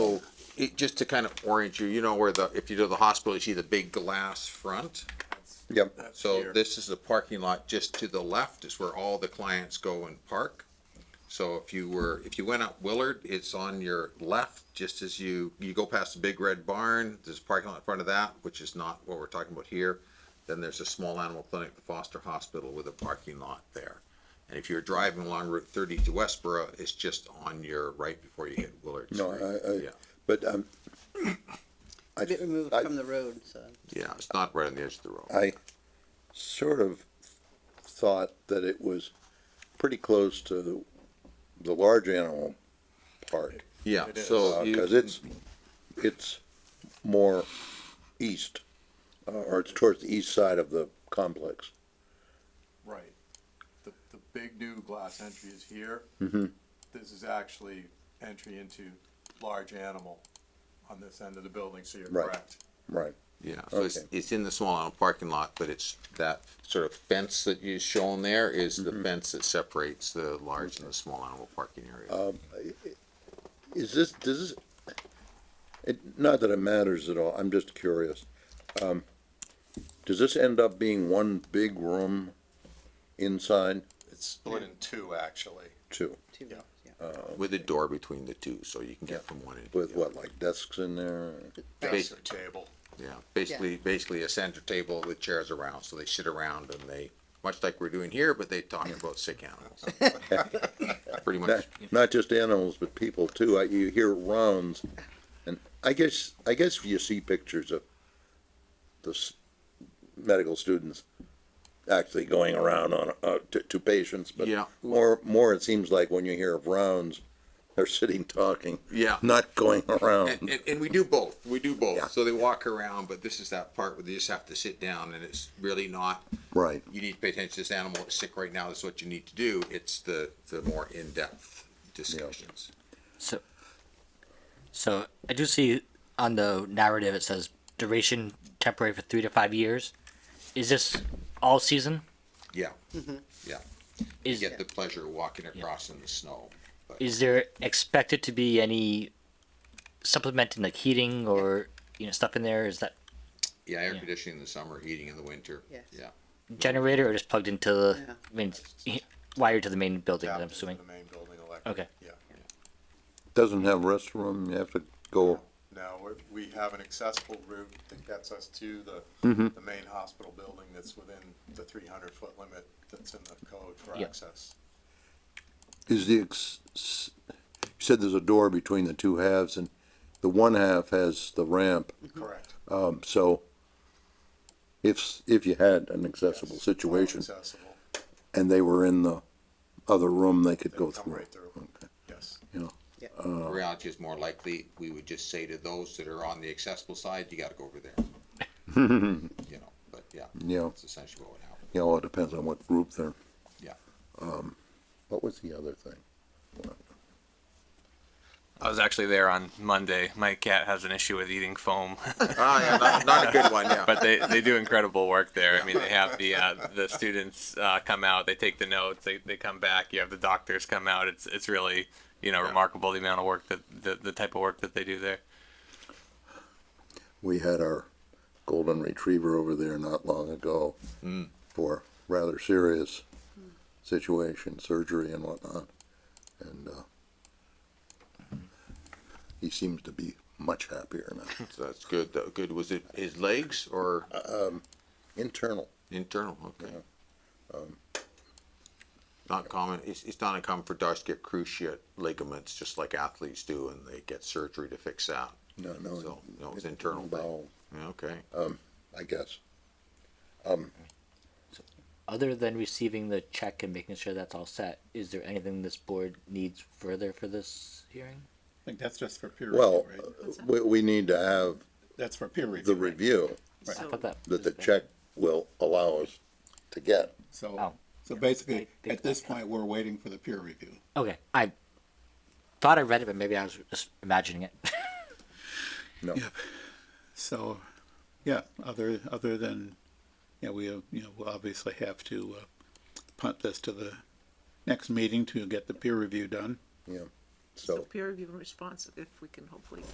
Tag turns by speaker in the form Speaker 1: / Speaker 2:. Speaker 1: it, just to kind of orient you, you know where the, if you go to the hospital, you see the big glass front?
Speaker 2: Yep.
Speaker 1: So this is the parking lot just to the left is where all the clients go and park. So if you were, if you went up Willard, it's on your left, just as you, you go past the big red barn, there's a parking lot in front of that, which is not what we're talking about here. Then there's a small animal clinic, the Foster Hospital with a parking lot there. And if you're driving along Route thirty to Westboro, it's just on your right before you hit Willard Street.
Speaker 2: No, I, I,
Speaker 1: Yeah,
Speaker 2: but, um, I,
Speaker 3: A bit removed
Speaker 2: I-
Speaker 3: from the road, so.
Speaker 1: yeah, it's not right on the edge of the road.
Speaker 2: I sort of thought that it was pretty close to the, the large animal park.
Speaker 1: Yeah,
Speaker 4: It is.
Speaker 1: so you.
Speaker 2: Because it's, it's more east, uh, or it's towards the east side of the complex.
Speaker 4: Right. The, the big new glass entry is here.
Speaker 2: Mhm.
Speaker 4: This is actually entry into large animal on this end of the building, so you're
Speaker 2: Right.
Speaker 4: correct.
Speaker 2: Right.
Speaker 1: Yeah, so it's,
Speaker 2: Okay.
Speaker 1: it's in the small animal parking lot, but it's that sort of fence that you shown there is the
Speaker 2: Mm-hmm.
Speaker 1: fence that separates the large and the small animal parking
Speaker 2: Oh,
Speaker 1: area.
Speaker 2: Is this, does this, it, not that it matters at all, I'm just curious. Um, Does this end up being one big room inside
Speaker 5: It's split in two, actually.
Speaker 2: too?
Speaker 3: two roads, yeah.
Speaker 1: With a door between the two, so you can get from one into
Speaker 2: With
Speaker 1: the other.
Speaker 2: what, like desks in there?
Speaker 5: Desk and table.
Speaker 1: Yeah, basically, basically a center table with chairs around, so they sit around and they, much like we're doing here, but they talk about sick animals. Pretty
Speaker 2: Not,
Speaker 1: much,
Speaker 2: not just animals, but people too. I, you hear rounds, and I guess, I guess you see pictures of the s- medical students actually going around on, uh, to, to patients, but
Speaker 1: Yeah.
Speaker 2: more, more it seems like when you hear of rounds, they're sitting talking,
Speaker 1: yeah.
Speaker 2: not going
Speaker 1: And,
Speaker 2: around.
Speaker 1: and, and we do both. We do both.
Speaker 2: Yeah.
Speaker 1: So they walk around, but this is that part where they just have to sit down and it's really not
Speaker 2: Right.
Speaker 1: you need to pay attention to this animal, it's sick right now, this is what you need to do, it's the, the more in-depth discussions.
Speaker 6: So, so I do see on the narrative it says duration temporary for three to five years. Is this all season?
Speaker 1: Yeah, yeah, you
Speaker 6: Is
Speaker 1: get the pleasure of walking across in the snow.
Speaker 6: is there expected to be any supplementing like heating or you know stuff in there? Is that
Speaker 1: Yeah, air
Speaker 6: Yeah.
Speaker 1: conditioning in the summer, heating in the winter,
Speaker 3: Yes.
Speaker 1: yeah.
Speaker 6: generator or just plugged into the
Speaker 3: Yeah.
Speaker 6: main wired to the main building?
Speaker 4: Tapped
Speaker 6: I'm
Speaker 4: into
Speaker 6: assuming.
Speaker 4: The main building electric.
Speaker 6: Okay.
Speaker 4: Yeah.
Speaker 2: Doesn't have restroom, you have to go,
Speaker 4: Now, we're, we have an accessible route that gets us to the,
Speaker 2: Mm-hmm.
Speaker 4: the main hospital building that's within the three hundred foot limit that's in the code for
Speaker 6: Yeah.
Speaker 4: access.
Speaker 2: is the, ex- s- you said there's a door between the two halves, and the one half has the ramp,
Speaker 4: Correct.
Speaker 2: Um, so if, if you had an accessible
Speaker 4: Yes.
Speaker 2: situation
Speaker 4: Accessible.
Speaker 2: and they were in the other room, they could
Speaker 4: They
Speaker 2: go
Speaker 4: come
Speaker 2: through.
Speaker 4: Right through, yes.
Speaker 1: The Reality is more likely, we would just say to those that are on the accessible side, you gotta go over there. You know, but yeah,
Speaker 2: Yeah,
Speaker 1: that's essentially what would happen,
Speaker 2: you know, it depends on what group they're.
Speaker 1: yeah.
Speaker 2: What was the other thing?
Speaker 7: I was actually there on Monday. My cat has an issue with eating foam,
Speaker 1: Ah, yeah, not, not a good one, yeah.
Speaker 7: but they, they do incredible work there. I mean, they have the uh, the students uh, come out, they take the notes, they, they come back. You have the doctors come out. It's it's really you know remarkable the amount of work that the, the type of work that they do there.
Speaker 2: We had our golden retriever over there not long ago
Speaker 4: Hmm.
Speaker 2: for rather serious situation, surgery and whatnot. And, uh, he seems to be much happier now.
Speaker 1: So that's good, though, good, was it his legs or
Speaker 2: Internal.
Speaker 1: internal, okay.
Speaker 2: Um,
Speaker 1: Not common, it's, it's not uncommon for dogs to get cruciate ligaments, just like athletes do, and they get surgery to fix that.
Speaker 2: No, no.
Speaker 1: So, no, it's internal thing.
Speaker 2: Bowel,
Speaker 1: Yeah, Okay,
Speaker 2: I guess.
Speaker 6: Other than receiving the check and making sure that's all set, is there anything this board needs further for this hearing?
Speaker 8: I think that's just for peer
Speaker 2: Well, uh,
Speaker 8: review, right?
Speaker 2: we, we need to have
Speaker 8: That's for peer review.
Speaker 2: the
Speaker 8: right?
Speaker 2: review
Speaker 6: I
Speaker 3: So-
Speaker 6: thought that
Speaker 2: that
Speaker 6: was
Speaker 2: the
Speaker 6: good.
Speaker 2: check will allow us to get.
Speaker 8: So,
Speaker 6: Oh.
Speaker 8: so
Speaker 6: I
Speaker 8: basically,
Speaker 6: think
Speaker 8: at this point, we're waiting for the peer review.
Speaker 6: Okay, I thought I read it, but maybe I was just imagining it.
Speaker 2: No,
Speaker 8: So, yeah, other, other than, yeah, we, uh, you know, we'll obviously have to uh, punt this to the next meeting to get the peer review done.
Speaker 2: yeah,
Speaker 9: So
Speaker 2: so,
Speaker 9: peer review and response, if we can hopefully